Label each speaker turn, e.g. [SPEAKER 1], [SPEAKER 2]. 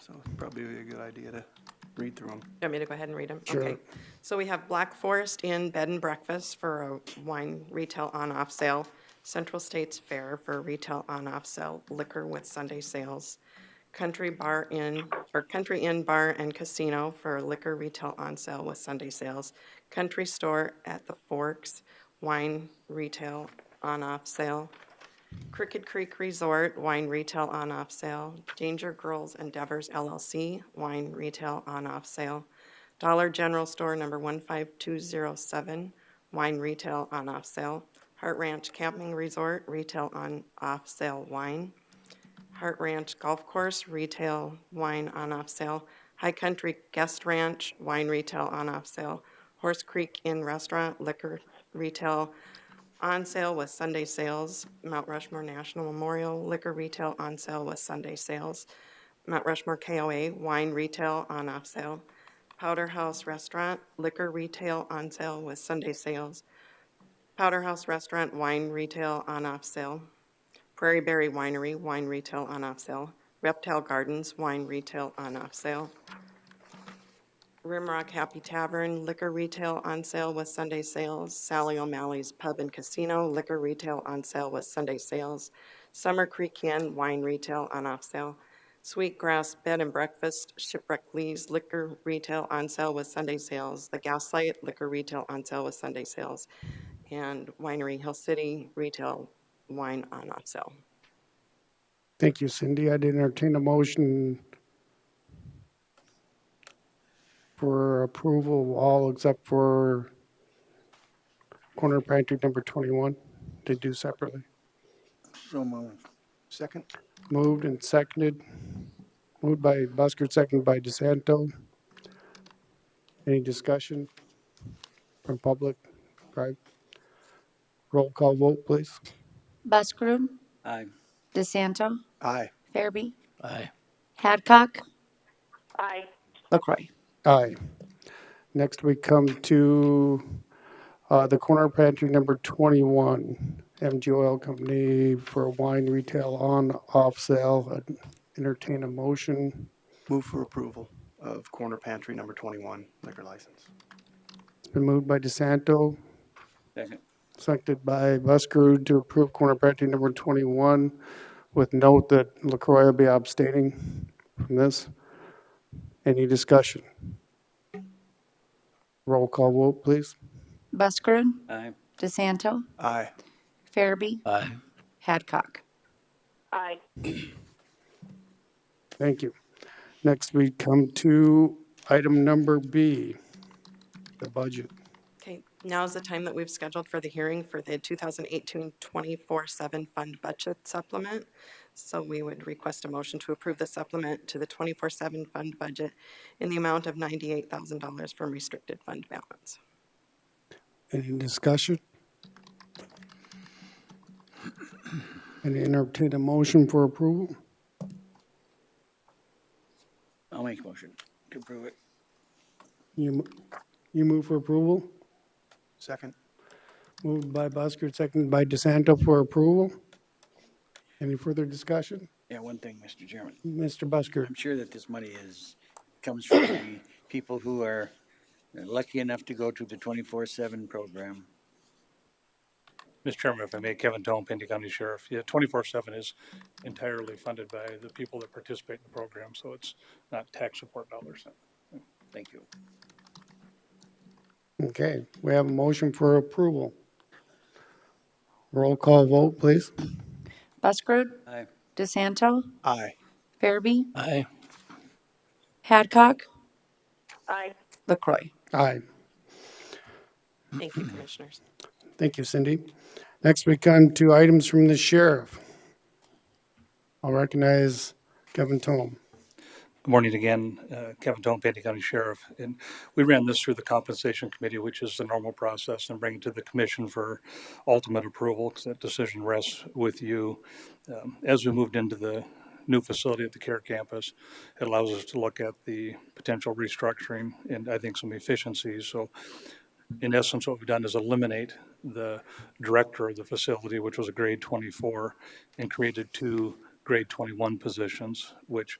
[SPEAKER 1] so it's probably a good idea to read through them.
[SPEAKER 2] You want me to go ahead and read them?
[SPEAKER 1] Sure.
[SPEAKER 2] Okay. So we have Black Forest Inn Bed and Breakfast for a wine retail on-off sale, Central States Fair for retail on-off sale, liquor with Sunday sales, Country Bar Inn, or Country Inn Bar and Casino for liquor retail on sale with Sunday sales, Country Store at the Forks, wine retail on-off sale, Crooked Creek Resort Wine Retail On-Off Sale, Danger Girls Endeavors LLC Wine Retail On-Off Sale, Dollar General Store Number 15207 Wine Retail On-Off Sale, Heart Ranch Camping Resort Retail On-Off Sale Wine, Heart Ranch Golf Course Retail Wine On-Off Sale, High Country Guest Ranch Wine Retail On-Off Sale, Horse Creek Inn Restaurant Liquor Retail on sale with Sunday sales, Mount Rushmore National Memorial Liquor Retail on sale with Sunday sales, Mount Rushmore KOA Wine Retail on off sale, Powder House Restaurant Liquor Retail on sale with Sunday sales, Powder House Restaurant Wine Retail on off sale, Prairie Berry Winery Wine Retail on off sale, Reptile Gardens Wine Retail on off sale, Rimrock Happy Tavern, liquor retail on sale with Sunday sales. Sally O'Malley's Pub and Casino, liquor retail on sale with Sunday sales. Summer Creek Inn, wine retail on off sale. Sweetgrass Bed and Breakfast, Shipwreck Lee's liquor retail on sale with Sunday sales. The Gaslight, liquor retail on sale with Sunday sales. And Winery Hill City, retail wine on off sale.
[SPEAKER 3] Thank you, Cindy. I'd entertain a motion for approval of all except for corner pantry number 21 to do separately.
[SPEAKER 1] So moved. Second?
[SPEAKER 3] Moved and seconded. Moved by Busker, seconded by DeSanto. Any discussion from public? Right. Roll call vote, please.
[SPEAKER 4] Buskirk,
[SPEAKER 1] Aye.
[SPEAKER 4] DeSanto,
[SPEAKER 1] Aye.
[SPEAKER 4] Fairby,
[SPEAKER 5] Aye.
[SPEAKER 4] Haddock. Aye. LaCroy.
[SPEAKER 3] Aye. Next, we come to uh, the corner pantry number 21, MG Oil Company for wine retail on, off sale. Entertain a motion.
[SPEAKER 1] Move for approval of Corner Pantry Number 21 liquor license.
[SPEAKER 3] It's Been moved by DeSanto,
[SPEAKER 6] Second.
[SPEAKER 3] seconded by Busker to approve corner pantry number 21 with note that LaCroy will be abstaining from this. Any discussion? Roll call vote, please.
[SPEAKER 4] Buskirk,
[SPEAKER 6] Aye.
[SPEAKER 4] DeSanto,
[SPEAKER 1] Aye.
[SPEAKER 4] Fairby,
[SPEAKER 5] Aye.
[SPEAKER 4] Haddock.
[SPEAKER 3] Thank you. Next, we come to item number B, the budget.
[SPEAKER 2] Okay, now is the time that we've scheduled for the hearing for the 2018-24/7 Fund Budget Supplement. So we would request a motion to approve the supplement to the 24/7 Fund Budget in the amount of $98,000 from restricted fund balance.
[SPEAKER 3] Any discussion? And entertain a motion for approval?
[SPEAKER 6] I'll make a motion to approve it.
[SPEAKER 3] You, mo- you move for approval?
[SPEAKER 1] Second?
[SPEAKER 3] Moved by Busker, seconded by DeSanto for approval. Any further discussion?
[SPEAKER 6] Yeah, one thing, Mr. Chairman.
[SPEAKER 3] Mr. Busker?
[SPEAKER 6] I'm sure that this money is, comes from the people who are lucky enough to go to the twenty-four seven program.
[SPEAKER 7] Mr. Chairman, if I may, Kevin Tone, Pinta County Sheriff. Yeah, twenty-four seven is entirely funded by the people that participate in the program, so it's not tax support dollars.
[SPEAKER 6] Thank you.
[SPEAKER 3] Okay, we have a motion for approval. Roll call vote, please.
[SPEAKER 4] Buskirk,
[SPEAKER 6] Aye.
[SPEAKER 4] DeSanto,
[SPEAKER 1] Aye.
[SPEAKER 4] Fairby,
[SPEAKER 5] Aye.
[SPEAKER 4] Haddock. Aye. LaCroy.
[SPEAKER 3] Aye.
[SPEAKER 2] Thank you, Commissioners.
[SPEAKER 3] Thank you, Cindy. Next, we come to items from the sheriff. I'll recognize Kevin Tome.
[SPEAKER 7] Good morning again, uh, Kevin Tone, Pantee County Sheriff. And we ran this through the Compensation Committee, which is the normal process, and bring it to the commission for ultimate approval, because that decision rests with you. Um, As we moved into the new facility at the CARE campus, it allows us to look at the potential restructuring and I think some efficiencies. So in essence, what we've done is eliminate the director of the facility, which was a grade 24, and created two grade 21 positions, which